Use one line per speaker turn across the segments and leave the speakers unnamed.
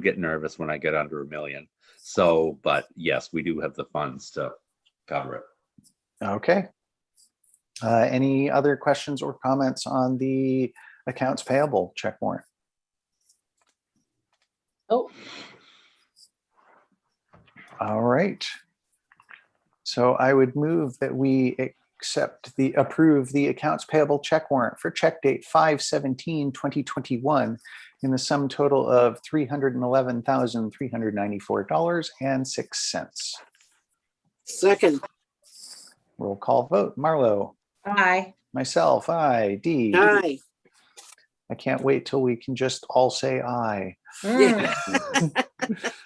get nervous when I get under a million. So, but yes, we do have the funds to cover it.
Okay. Uh, Any other questions or comments on the accounts payable check warrant?
Oh,
All right. So I would move that we accept the, approve the accounts payable check warrant for check date 2021 in the sum total of three hundred and eleven thousand, three hundred ninety-four dollars and six cents.
second,
Roll call vote. Marlo,
Aye.
myself, I, D.
aye.
I can't wait till we can just all say aye.
Yeah.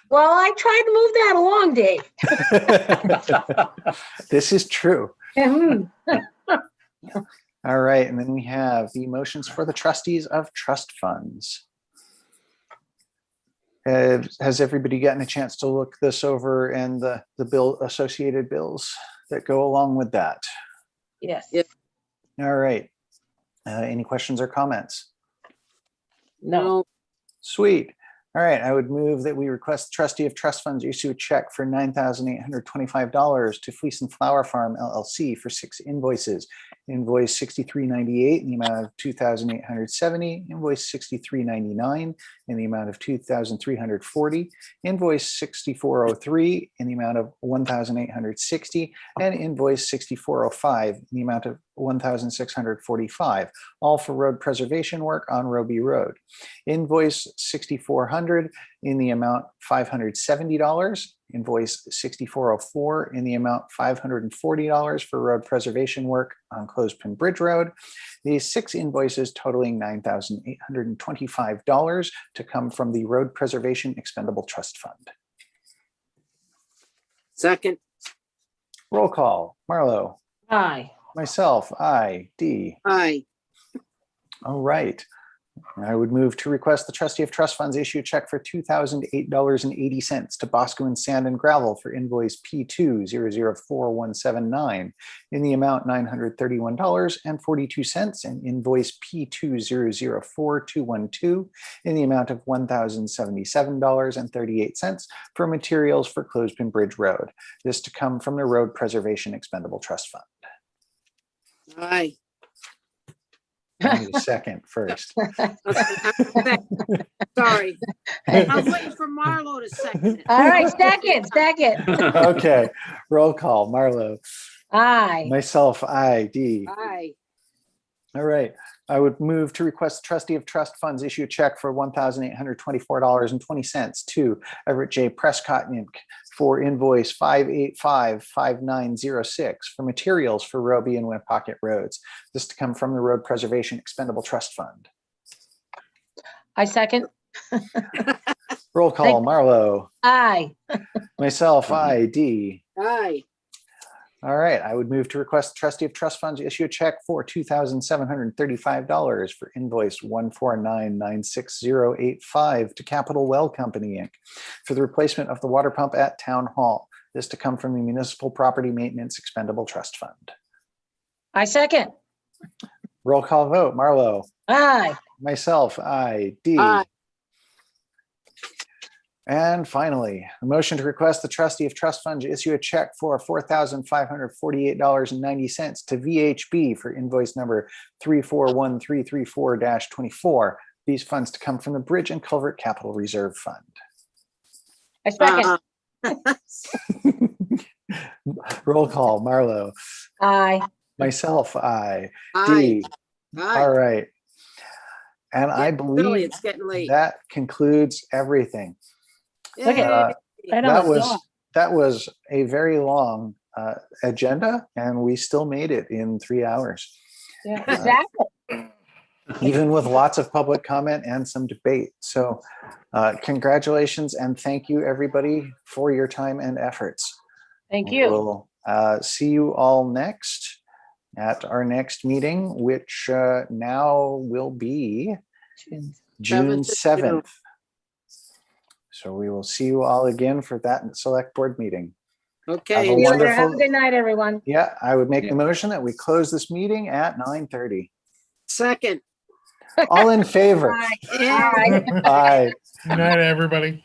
Well, I tried to move that along, Dave.
This is true.
Hmm.
All right, and then we have the motions for the trustees of trust funds. Have- Has everybody gotten a chance to look this over and the, the bill, associated bills that go along with that?
Yes.
Yeah.
All right. Uh, Any questions or comments?
No.
No,
Sweet. All right, I would move that we request the trustee of trust funds issue a check for nine thousand eight hundred twenty-five dollars to Fleece and Flower Farm LLC for six invoices. Invoice sixty-three ninety-eight in the amount of two thousand eight hundred seventy, invoice sixty-three ninety-nine in the amount of two thousand three hundred forty, invoice sixty-four oh three in the amount of one thousand eight hundred sixty, and invoice sixty-four oh five in the amount of one thousand six hundred forty-five, all for road preservation work on Roby Road invoice sixty-four hundred in the amount five hundred seventy dollars, invoice sixty-four oh four in the amount five hundred and forty dollars for road preservation work on Clothespin Bridge Road. These six invoices totaling nine thousand eight hundred and twenty-five dollars to come from the Road Preservation Expendable Trust Fund.
second,
Roll call, Marlo,
Aye.
myself, I, D.
aye.
All right. I would move to request the trustee of trust funds issue a check for two thousand eight dollars and eighty cents to Bosco and Sand and Gravel for invoice P two zero zero four one seven nine in the amount nine hundred thirty-one dollars and forty-two cents and invoice P two zero zero four two one two in the amount of one thousand seventy-seven dollars and thirty-eight cents for materials for Clothespin Bridge Road. This to come from the Road Preservation Expendable Trust Fund.
Aye.
I need a Second first.
Sorry, I was waiting for Marlo to second
Uh,
it.
All right, second, second.
Okay, roll call. Marlo.
Aye.
Myself, I, D.
Aye,
All right. I would move to request trustee of trust funds issue a check for one thousand eight hundred twenty-four dollars and twenty cents to Everett J. Prescott Inc. for invoice five eight five five nine zero six for materials for Roby and Winnipocket roads. This to come from the Road Preservation Expendable Trust Fund.
I second.
Roll call,
Thank-
Marlo.
Aye.
Myself, I, D.
aye,
All right, I would move to request the trustee of trust funds issue a check for two thousand seven hundred and thirty-five dollars for invoice one four nine nine six zero eight five to Capital Well Company, Inc. for the replacement of the water pump at Town Hall. This to come from the Municipal Property Maintenance Expendable Trust Fund.
I second.
Roll call vote, Marlo,
Aye.
myself, I, D.
aye,
And finally, a motion to request the trustee of trust fund to issue a check for four thousand five hundred forty-eight dollars and ninety cents to VHB for invoice number three four one three three four twenty-four. These funds to come from the Bridge and Culvert Capital Reserve Fund.
I
Uh-huh.
second.
Roll call, Marlo,
Aye.
myself, I,
aye,
D. All
aye.
right. And I
Really,
believe
it's getting late.
that concludes everything.
Look at-
Uh,
Yay.
I know.
That
it's
was,
not.
that was a very long uh, agenda and we still made it in three hours,
Yeah, Exactly.
even with lots of public comment and some debate. So uh, congratulations and thank you, everybody, for your time and efforts.
Thank
We
you.
will, uh, See you all next at our next meeting, which uh, now will be June
Seventh of June.
7th. So we will see you all again for that select board meeting.
Okay,
have a
See you later. Have a
wonderful-
good night, everyone.
Yeah, I would make
Yeah.
the motion that we close this meeting at nine thirty.
second.
All in favor?
Aye.
Yeah.
Aye.
Aye.
Good night, everybody.